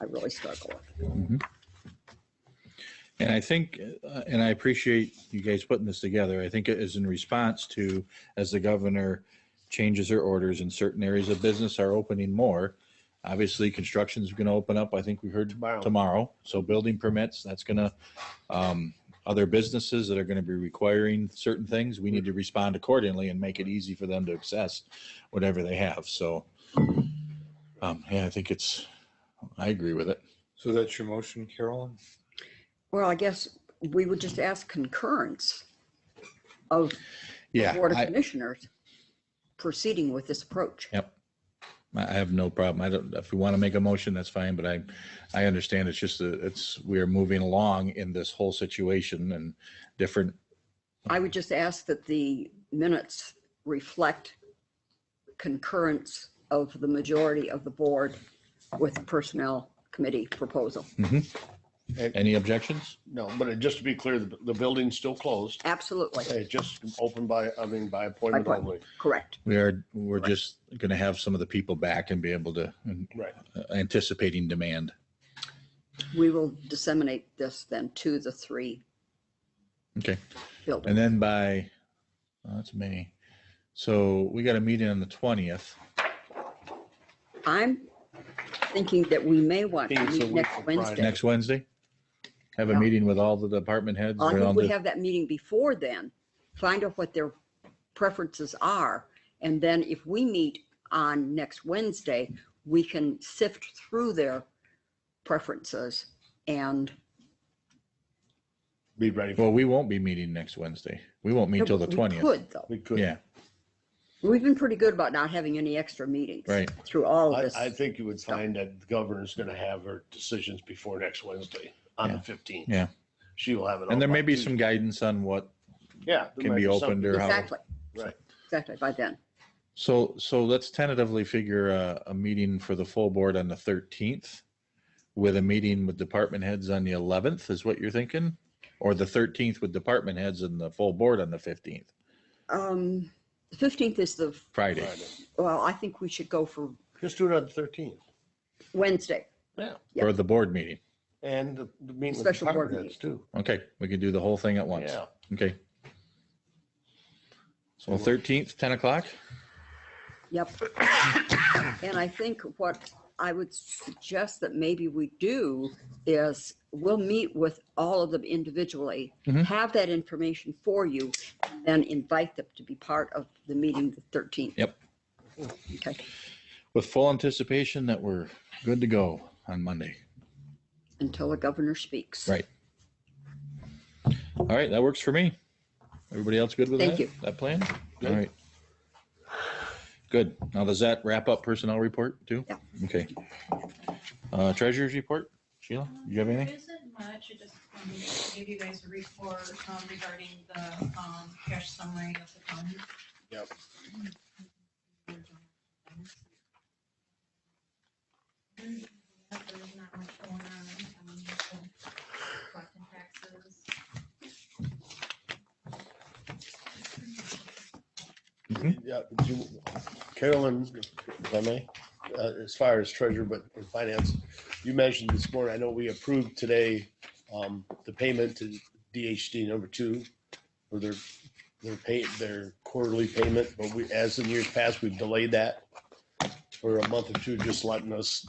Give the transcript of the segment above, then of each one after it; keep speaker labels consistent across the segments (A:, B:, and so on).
A: I really struggle with.
B: And I think, uh, and I appreciate you guys putting this together. I think it is in response to, as the governor changes her orders and certain areas of business are opening more. Obviously, construction's going to open up, I think we heard
C: Tomorrow.
B: tomorrow. So building permits, that's going to, um, other businesses that are going to be requiring certain things, we need to respond accordingly and make it easy for them to access whatever they have. So, um, yeah, I think it's, I agree with it.
D: So that's your motion, Carolyn?
A: Well, I guess we would just ask concurrence of the
B: Yeah.
A: Board of
B: I-
A: Commissioners proceeding with this approach.
B: I I have no problem. I don't, if we want to make a motion, that's fine, but I, I understand it's just, a- it's, we are moving along in this whole situation and different.
A: I would just ask that the minutes reflect concurrence of the majority of the board with the Personnel Committee proposal.
B: Any objections?
C: No, but it- just to be clear, the, the building's still closed.
A: Absolutely,
C: It just opened by, I mean, by appointment
A: By appointment.
C: only.
A: correct.
B: We are, we're just going to have some of the people back and be able to, and uh,
C: Right.
B: anticipating demand.
A: We will disseminate this then to the three
B: Okay. And
A: buildings.
B: then by, oh, that's May. So we got a meeting on the 20th.
A: I'm thinking that we may want to
C: Being it's a
A: meet
C: week
A: next
C: from
A: Wednesday.
B: Next Wednesday? Have a
A: Yeah.
B: meeting with all the department heads?
A: I
B: around
A: think we
B: the-
A: have that meeting before then, find out what their preferences are. And then if we meet on next Wednesday, we can sift through their preferences and
C: Be ready. for
B: Well, we won't be meeting next Wednesday. We won't meet till the
A: We
B: 20th.
A: Could though.
C: We could.
B: Yeah,
A: We've been pretty good about not having any extra meetings.
B: Right.
A: Through all of
C: I,
A: Oh, this.
C: I think you would find that the governor's gonna have her decisions before next Wednesday on the fifteenth.
B: yeah.
C: She will have it. all
B: And there
C: by
B: may be
C: Tuesday.
B: some guidance on what
C: Yeah. there
B: can
C: might
B: be opened
C: something.
B: or- how-
A: Exactly,
C: Right.
A: exactly, by then.
B: So, so let's tentatively figure a, a meeting for the full board on the thirteenth with a meeting with department heads on the eleventh is what you're thinking? Or the thirteenth with department heads and the full board on the fifteenth,
A: Um, the fifteenth is the,
B: Friday.
A: well, I think we should go for
C: Just do it on the thirteenth.
A: Wednesday.
C: Yeah.
A: Yeah.
B: Or the board meeting.
C: And the the meeting with
A: Special board
C: department heads too.
B: Okay, we can do the whole thing at once.
C: Yeah.
B: Okay. So
C: Good work.
B: thirteenth, ten o'clock?
A: Yep. And I think what I would suggest that maybe we do is we'll meet with all of them individually,
B: Mhm.
A: have that information for you, and then invite them to be part of the meeting the 13th.
B: Yep.
A: Okay,
B: With full anticipation that we're good to go on Monday.
A: until the governor speaks.
B: Right. All right, that works for me. Everybody else good with
A: Thank
B: that?
A: you.
B: That plan? All
C: Good.
B: right. Good. Now, does that wrap up personnel report too?
A: Yeah.
B: Okay. Uh, treasurer's report, Sheila, you have anything?
E: There isn't much, I just wanted to give you guys a report um, regarding the um, cash summary of the fund.
C: Yep.
E: There's not much going on, um, so collecting taxes.
C: Yeah, but you- Carolyn, if I may, uh, as far as treasure, but in finance, you mentioned this morning, I know we approved today um, the payment to DHD number two for their, their pay, their quarterly payment, but we, as in years past, we've delayed that for a month or two, just letting us,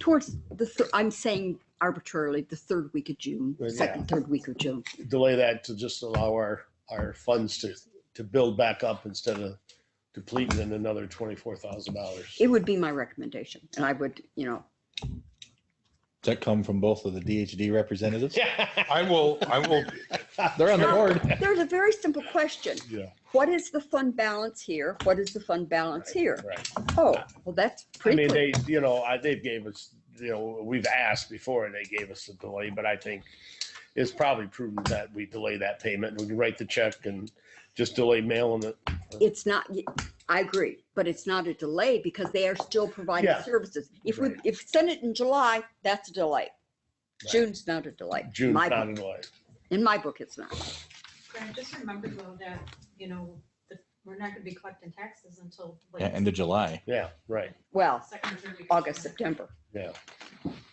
A: Towards the, thir- I'm saying arbitrarily, the third week of June,
C: Well, yeah.
A: second, third week of June.
C: delay that to just allow our, our funds to, to build back up instead of depleting in another twenty-four thousand dollars.
A: It would be my recommendation, and I would, you know,
B: Does that come from both of the DHD representatives?
D: I will, I will,
B: They're on the
A: No.
B: board.
A: there's a very simple question.
C: Yeah.
A: What is the fund balance here? What is the fund balance here?
C: Right.
A: Oh, well, that's
C: I
A: pretty
C: mean,
A: clear.
C: they, you know, I, they gave us, you know, we've asked before and they gave us a delay, but I think it's probably prudent that we delay that payment. We can write the check and just delay mailing it.
A: It's not, I agree, but it's not a delay because they are still providing
C: Yeah.
A: services. If we,
C: Right.
A: if send it in July, that's a delay.
C: Right.
A: June's not a delay. In
C: June,
A: my
C: not
A: book-
C: a delay.
A: In my book, it's not.
E: Grant, just remember though that, you know, that we're not gonna be collecting taxes until. like,
B: Yeah, end of July.
C: Yeah, right,
A: Well,
E: Second, or third week. of
A: August,
E: September.
A: September.
C: yeah.